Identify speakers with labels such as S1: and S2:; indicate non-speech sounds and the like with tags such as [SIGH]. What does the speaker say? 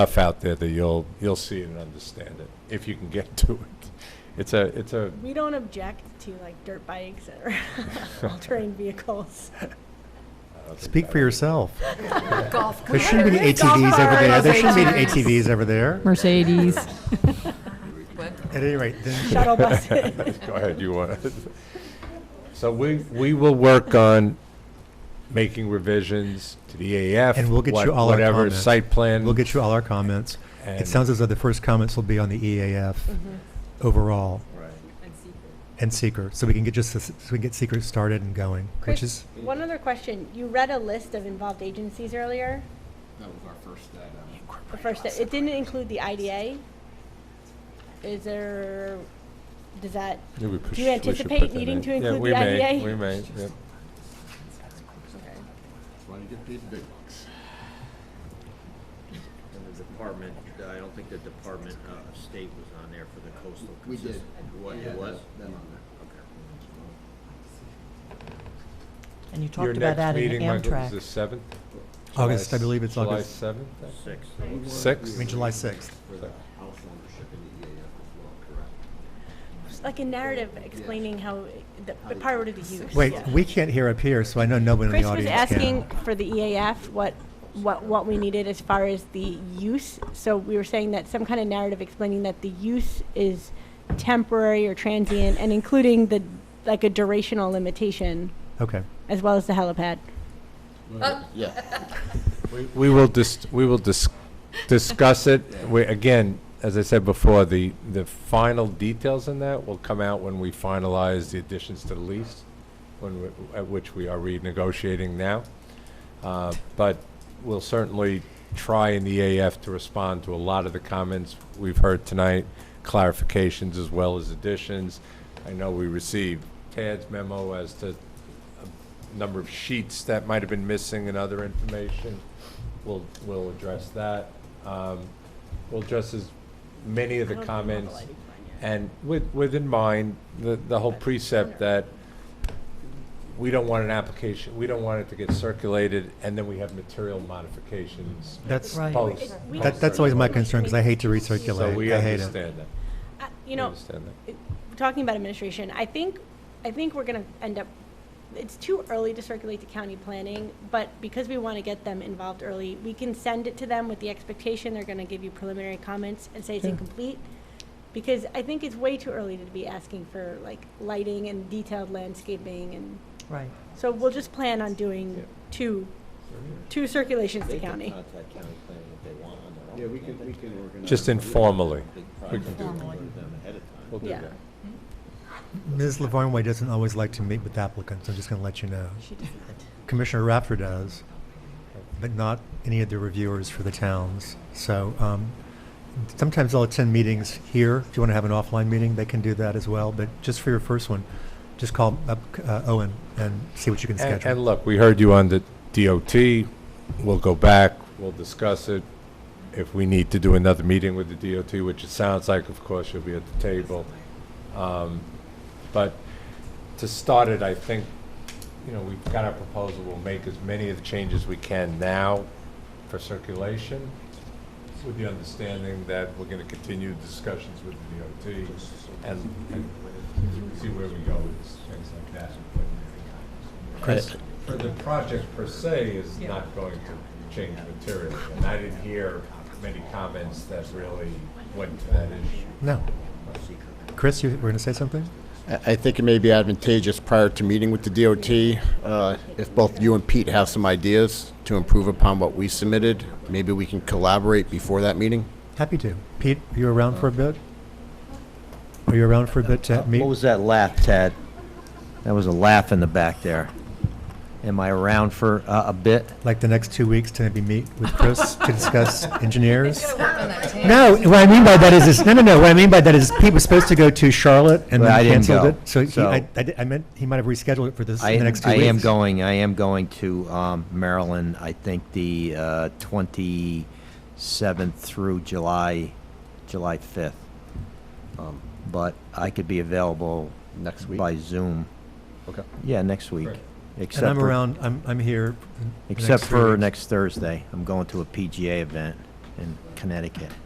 S1: stuff out there that you'll, you'll see it and understand it, if you can get [LAUGHS] to it. It's a, it's a,
S2: We don't object to like dirt bikes or [LAUGHS] all-terrain vehicles.
S1: uh,
S3: Speak for yourself.
S4: Golf
S3: There shouldn't be any ATVs over there. There shouldn't be any ATVs over there.
S5: Mercedes.
S3: At any rate, then,
S2: Shuttle buses.
S1: [LAUGHS] Go ahead, you want it. So we, we will work on making revisions to the AF.
S3: And we'll get
S1: what-
S3: you all our
S1: Whatever
S3: comments.
S1: site plan.
S3: we'll get you all our comments. It
S1: and-
S3: sounds as though the first comments will be on the EAF overall and seeker, so we can get just, the- so we can get seeker started and going, which
S2: Chris,
S3: is,
S2: One other question. You read a list of involved agencies earlier.
S6: That was our first um, step.
S2: The first, it didn't include the IDA. Is there, does that,
S1: Yeah, we push-
S2: you
S1: we should
S2: anticipate
S1: put that
S2: needing
S1: in.
S2: to
S1: Yeah,
S2: include
S1: we
S2: the
S1: may,
S2: IDA?
S1: We may, yeah.
S6: That's why you get paid the big bucks.
S7: And the department, I don't think the Department of State was on there for the coastal.
S6: We did.
S7: consist-
S6: We
S7: What,
S6: had
S7: it was?
S6: Them on there.
S4: And you
S1: Your
S4: talked about
S1: next
S4: adding
S1: meeting, Michael, is the
S4: Amtrak.
S1: seventh?
S3: August,
S1: July
S3: I
S1: s-
S3: believe it's August.
S1: July seventh?
S7: Six.
S1: Six?
S3: I mean, July 6th.
S6: For the house ownership in the EAF as well, correct?
S2: just like a narrative explaining how the the priority of the use?
S3: Wait, we can't hear up here, so I know nobody in
S2: Chris
S3: the
S2: was
S3: audience can.
S2: asking for the EAF, what, what, what we needed as far as the use. So we were saying that some kind of narrative explaining that the use is temporary or transient and including the, like a durational limitation
S3: Okay.
S2: as well as the helipad.
S6: Yeah.
S1: We- We will dis, we will dis, discuss it. We, again, as I said before, the, the final details in that will come out when we finalize the additions to the lease, when, we- at which we are renegotiating now. Uh, But we'll certainly try in the AF to respond to a lot of the comments we've heard tonight, clarifications as well as additions. I know we received Tad's memo as to a number of sheets that might have been missing and other information. We'll, we'll address that. Um, We'll address as many of the comments, and with, with in mind, the, the whole precept that we don't want an application, we don't want it to get circulated, and then we have material modifications.
S3: That's,
S4: Right.
S1: post-
S3: that- that's always my concern, because I hate to
S1: So
S3: recirculate.
S1: we
S3: I hate it.
S1: understand that.
S2: Uh, You
S1: We
S2: know,
S1: understand that.
S2: it- talking about administration, I think, I think we're gonna end up, it's too early to circulate to county planning, but because we wanna get them involved early, we can send it to them with the expectation they're gonna give you preliminary comments and say it's incomplete. Because I think it's way too early to be asking for like lighting and detailed landscaping and,
S4: Right.
S2: so we'll just plan on doing two, two circulations to
S7: They can
S2: county.
S7: contact county planning if they want on their own.
S6: Yeah, we can, we can organize.
S1: Just informally,
S7: Big
S1: we
S7: project,
S1: can
S7: go
S1: do,
S7: to them ahead of time.
S1: we'll do
S2: Yeah.
S1: that.
S3: Ms. Lavarnway doesn't always like to meet with applicants, I'm just going to let you know.
S4: She does not.
S3: Commissioner Rafter does, but not any of the reviewers for the towns. So um, sometimes I'll attend meetings here. If you want to have an offline meeting, they can do that as well. But just for your first one, just call up uh, Owen and see what you can
S1: And, and
S3: schedule.
S1: look, we heard you on the DOT, we'll go back, we'll discuss it. If we need to do another meeting with the DOT, which it sounds like, of course, you'll be at the table. Um, But to start it, I think, you know, we've got our proposal, we'll make as many of the changes we can now for circulation, with the understanding that we're gonna continue discussions with the DOT and, and see where we go with things like that.
S3: Chris?
S1: For the project per se is not going to change materially, and I didn't hear many comments that really went to that issue.
S3: No. Chris, you were going to say something?
S6: I I think it may be advantageous prior to meeting with the DOT, uh, if both you and Pete have some ideas to improve upon what we submitted, maybe we can collaborate before that meeting?
S3: Happy to. Pete, are you around for a bit? Are you around for a bit to meet?
S7: Uh, What was that laugh, Tad? That was a laugh in the back there. Am I around for uh, a bit?
S3: like the next two weeks to maybe meet with Chris to discuss engineers? No, what I mean by that is, is, no, no, no, what I mean by that is Pete was supposed to go to Charlotte and
S7: Well, I
S3: then
S7: didn't
S3: canceled
S7: go,
S3: it. So he,
S7: so-
S3: I, I di- I meant, he might have rescheduled it for this,
S7: I,
S3: in the next two
S7: I
S3: weeks.
S7: am going, I am going to um, Maryland, I think the uh, 27th through July, July 5th. Um, But I could be available.
S6: Next week?
S7: By Zoom.
S6: Okay.
S7: Yeah, next week.
S1: Right.
S3: And
S7: Except
S3: I'm
S7: for-
S3: around, I'm, I'm here. the next
S7: Except
S3: three
S7: for
S3: weeks.
S7: next Thursday. I'm going to a PGA event in Connecticut.